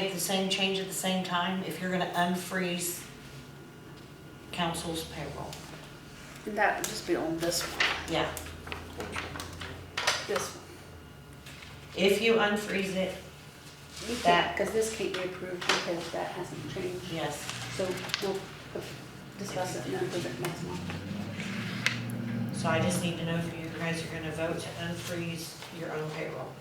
Make the same change at the same time if you're gonna unfreeze council's payroll. That would just be on this one, Yeah, this one. if you unfreeze it, You can't- That- Cause this can't be approved because that hasn't changed, yes. so we'll discuss it and then approve it next month. So I just need to know if you guys are gonna vote to unfreeze your own payroll.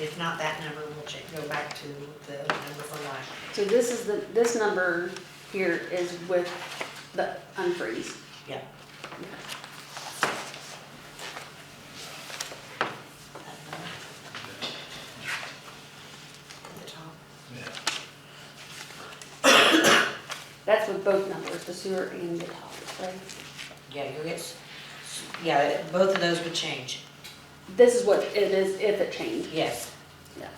If not, that number will check, go back to the number from last So this is the, this number here is with the unfreeze. year. Yeah. At the top. That's with both numbers, the sewer and the top, right? Yeah, you'll get, s- s- yeah, both of those would change, This is what it is if it changed, yes. yeah.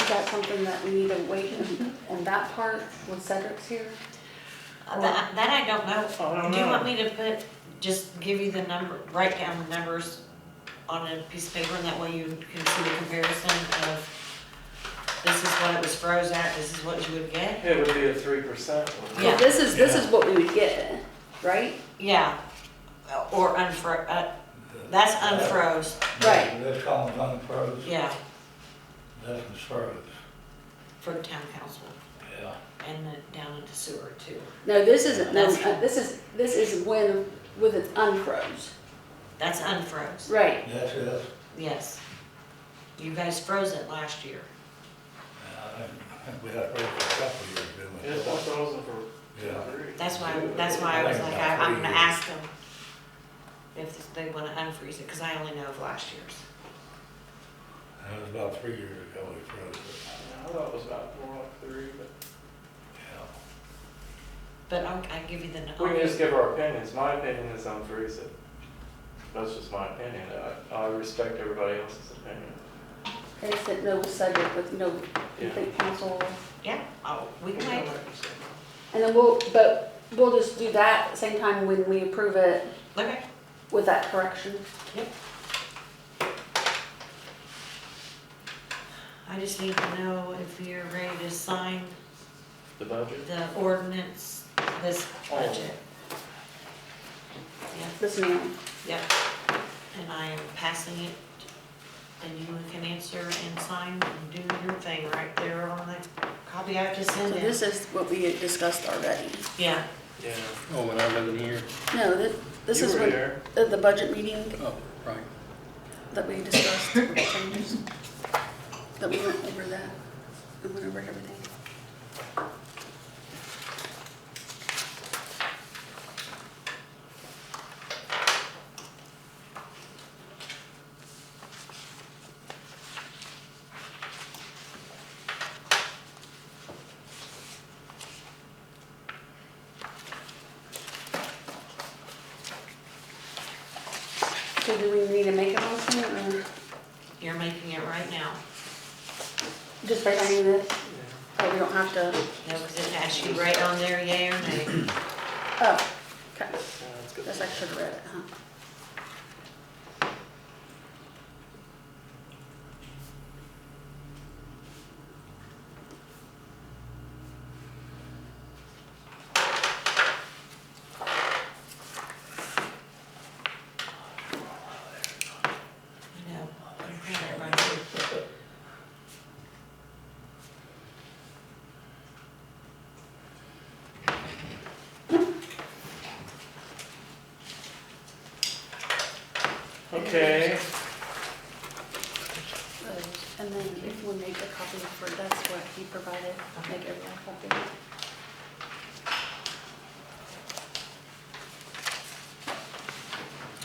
Is that something that we need to wait on- on that part when Cedric's here? Uh, That, that I don't I know. don't Do you know. want me to put, just give you the number, write down the numbers on a piece of paper and that way you can see the comparison of this is what it was froze at, this is what you would get? It would be a three percent one. Yeah. This is, this is what we would get, right? Yeah, Uh, or unfro, uh, that's unfroze, Right. This column's unfroze, yeah, this one's froze, for town council yeah. and then down into sewer too. No, this isn't, no, That's- uh, this is, this is when, with it unfroze. That's unfroze, Right. This is, yes. You guys froze it last year. I think we had it for a couple years, Yeah, didn't four we? thousand for Yeah. three. That's why, that's why I was like, I- I'm gonna ask them if they wanna unfreeze it, cause I only know of last year's. That was about three years ago we froze it, I thought it was about four, like three, but yeah. But I'll, I'll give you the. we can just give our opinions. My opinion is I'm for it. That's just my opinion. I, I respect everybody else's opinion. They said no subject with no, you Yeah. think council, Yeah, I'll, we can wait, and then we'll, but we'll just do that same time when we approve it okay, with that correction. yep. I just need to know if you're ready to sign The budget? the ordinance, this budget. Yeah, This new yep, and I am passing it, and you can answer and sign and do your thing right there on that copy I just So sent in. this is what we had discussed already. Yeah, Yeah. Oh, when I wasn't here? No, this, this You is were what, there. the, the budget meeting Oh, right. that we discussed with the changes. That we went over that, we went over everything. So do we need to make a motion or you're making it right now. just write down this, Yeah. but we don't have to, No, because it asks you right on there, yay or nay. oh, okay, Yeah, that's good. guess I should have read it, huh? No. I'm putting it right here. Okay. uh-huh. And then if we make a copy for, that's what he provided, make everyone a copy.